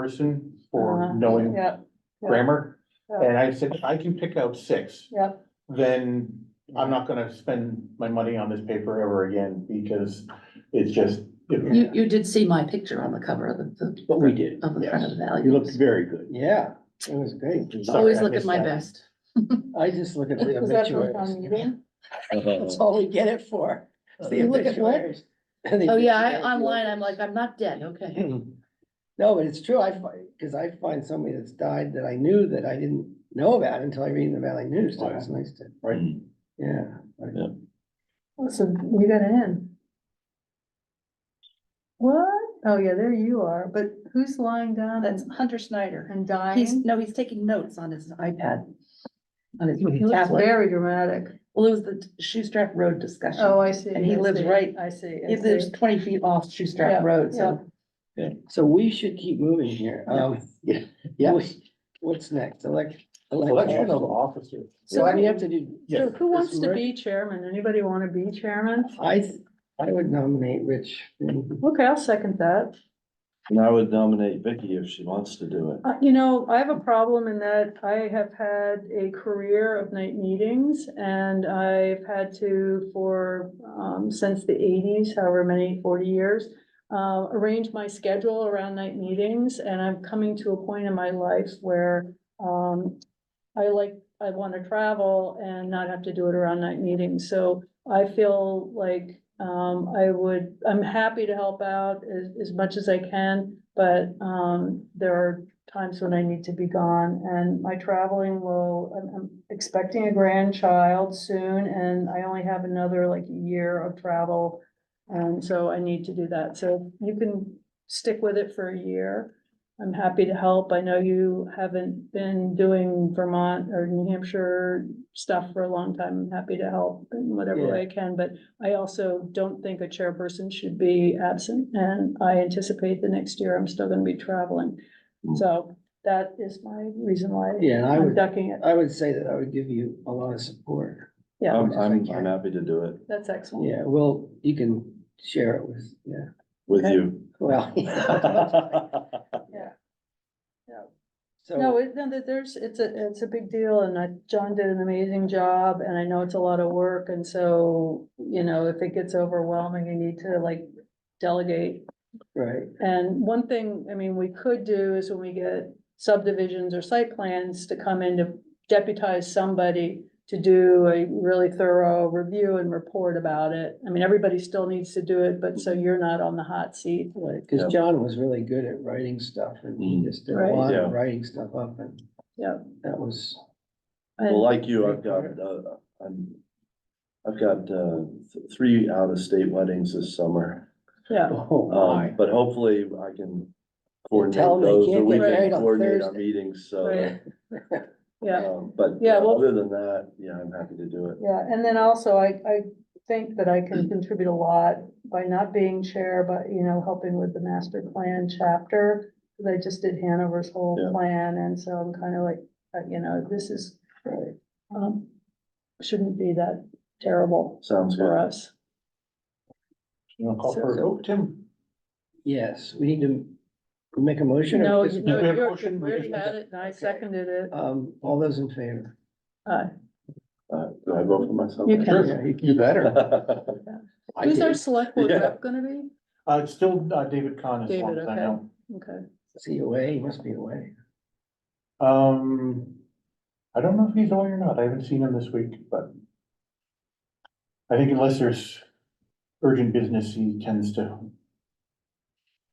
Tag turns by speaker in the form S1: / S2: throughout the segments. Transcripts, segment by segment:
S1: person for
S2: Uh-huh.
S1: knowing
S2: Yeah, yeah.
S1: grammar.
S2: Yeah.
S1: And I said, I can pick out six,
S2: yeah,
S1: then I'm not gonna spend my money on this paper ever again because it's just.
S3: You, you did see my picture on the cover of the,
S4: But we did.
S3: the-
S2: Oh,
S3: of the front of the
S4: You looked
S3: values.
S4: very good. Yeah, it was great.
S3: Always
S1: Sorry, I
S3: look at
S1: missed
S3: my
S1: that.
S3: best.
S4: I just look at the
S2: Was that from town
S4: obituaries.
S2: meeting?
S4: That's all we get it for. the
S3: You look at what?
S4: obituaries. The
S3: Oh, yeah, I,
S4: obituaries.
S3: online, I'm like, I'm not dead, okay.
S4: No, but it's true. I find, because I find somebody that's died that I knew that I didn't know about until I read in the Valley News. So it's nice to,
S1: Right,
S5: Mm.
S4: yeah.
S2: listen, we gotta end. What? Oh, yeah, there you are, but who's lying down
S3: That's
S2: and,
S3: Hunter Snyder.
S2: and
S3: He's,
S2: dying?
S3: no, he's taking notes on his iPad. On his
S2: He looks
S3: tablet.
S2: very dramatic.
S3: Well, it was the Shoestrap Road discussion.
S2: Oh, I see.
S3: And he
S2: I
S3: lives
S2: see,
S3: right-
S2: I see. I
S3: He lives
S2: see.
S3: twenty feet off
S2: Yeah,
S3: Shoestrap Road, so.
S4: So we should keep moving here. Um, yeah, we- what's next? Elect.
S1: election of officers.
S4: So we have to do,
S2: So
S1: Yes,
S2: who wants to
S4: Rick?
S2: be chairman? Anybody wanna be chairman?
S4: I, th- I would nominate Rich.
S2: Okay, I'll second that.
S5: And I would nominate Vicky if she wants to do it.
S2: Uh, you know, I have a problem in that I have had a career of night meetings and I've had to for, um, since the eighties, however many, forty years, uh, arrange my schedule around night meetings and I'm coming to a point in my life where, um, I like, I want to travel and not have to do it around night meetings. So I feel like, um, I would, I'm happy to help out as, as much as I can, but, um, there are times when I need to be gone and my traveling will, I'm, I'm expecting a grandchild soon and I only have another like year of travel. And so I need to do that. So you can stick with it for a year. I'm happy to help. I know you haven't been doing Vermont or New Hampshire stuff for a long time. I'm happy to help in whatever way I can, but I also don't think a chairperson should be absent, and I anticipate the next year I'm still gonna be traveling.
S5: Mm.
S2: So that is my reason why
S4: Yeah, and I
S2: I'm
S4: would,
S2: ducking it.
S4: I would say that I would give you a lot of support.
S2: Yeah,
S5: I'm, I'm,
S4: Yeah.
S5: I'm happy to do it
S2: that's excellent.
S4: Yeah, well, you can share it with, yeah,
S5: with
S2: Okay.
S5: you.
S4: well.
S2: No,
S4: So,
S2: it, no, there- there's, it's a, it's a big deal and I, John did an amazing job and I know it's a lot of work and so, you know, if it gets overwhelming, you need to like delegate
S4: right,
S2: And one thing, I mean, we could do is when we get subdivisions or site plans to come in to deputize somebody to do a really thorough review and report about it. I mean, everybody still needs to do it, but so you're not on the hot seat.
S4: Mm-hmm. right,
S5: Yeah.
S4: because John was really good at writing stuff and he
S5: Mm.
S4: just did a
S2: Right.
S4: lot
S5: Yeah.
S4: of writing stuff up and
S2: Yeah.
S4: that was,
S5: Well, like you, I've got, uh, I'm, I've got, uh, th- three out of state weddings this summer.
S2: Yeah,
S4: oh
S5: Um,
S4: my.
S5: but hopefully I can coordinate
S4: Tell 'em they
S5: those, or
S4: can't
S5: we
S4: get
S5: can
S4: married on
S5: coordinate our
S4: Thursday.
S5: meetings, so.
S2: Right.
S5: that-
S2: yeah.
S5: um, But
S2: Yeah, well-
S5: other than that, yeah, I'm happy to do it.
S2: Yeah, and then also I, I think that I can contribute a lot by not being chair, but, you know, helping with the master plan chapter. Cause I just did Hanover's whole
S5: Yeah.
S2: plan and so I'm kind of like, uh, you know, this is,
S4: Right.
S2: um, shouldn't be that terrible
S5: Sounds
S2: for
S5: good.
S2: us.
S1: You wanna call for a vote, Tim?
S4: Yes, we need to make a motion. or
S2: No,
S4: just-
S2: you know,
S1: we have a
S2: you're-
S1: motion,
S2: we
S1: we
S2: already
S1: just-
S2: had it and I
S4: Okay.
S2: seconded it.
S4: Um, all those in favor?
S2: Uh,
S5: Uh, do I vote for myself?
S2: You can.
S4: Yeah, you-
S1: You better. I
S2: Who's our
S1: did.
S2: select board
S5: Yeah.
S2: rep gonna be?
S1: Uh, it's still, uh, David Khan as long
S2: David,
S1: as I
S2: okay.
S1: know.
S2: Okay.
S4: Is he away? He must be away.
S1: Um, I don't know if he's away or not. I haven't seen him this week, but. I think unless there's urgent business, he tends to.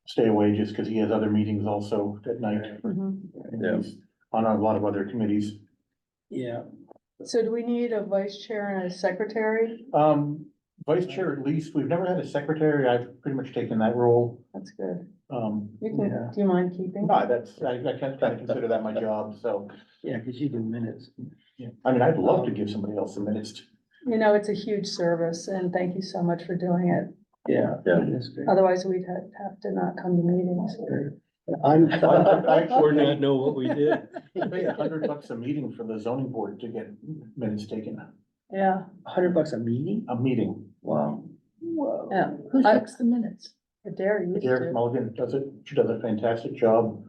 S1: Stay away just because he has other meetings also at night.
S2: Mhm.
S5: Yeah.
S1: He's On a lot of other committees.
S4: Yeah,
S2: So do we need a vice chair and a secretary?
S1: Um, vice chair at least, we've never had a secretary. I've pretty much taken that role.
S2: That's good.
S1: Um,
S2: You can,
S4: Yeah.
S2: do you mind keeping?
S1: no, that's, I, I kind of consider that my job, so.
S4: yeah, because you do minutes.
S1: yeah. I mean, I'd love to give somebody else a minute.
S2: You know, it's a huge service and thank you so much for doing it.
S4: Yeah.
S5: Yeah.
S4: That's great.
S2: Otherwise, we'd have, have to not come to meetings.
S4: I'm,
S1: Or
S5: not know what we did.
S1: I Pay a hundred bucks a meeting for the zoning board to get minutes taken,
S2: Yeah,
S4: hundred bucks a meeting?
S1: a meeting.
S5: Wow.
S4: Whoa.
S2: yeah.
S3: Who
S2: I-
S3: takes the minutes?
S2: Dare you
S1: Derek
S2: to.
S1: Mulligan does it, she does a fantastic job.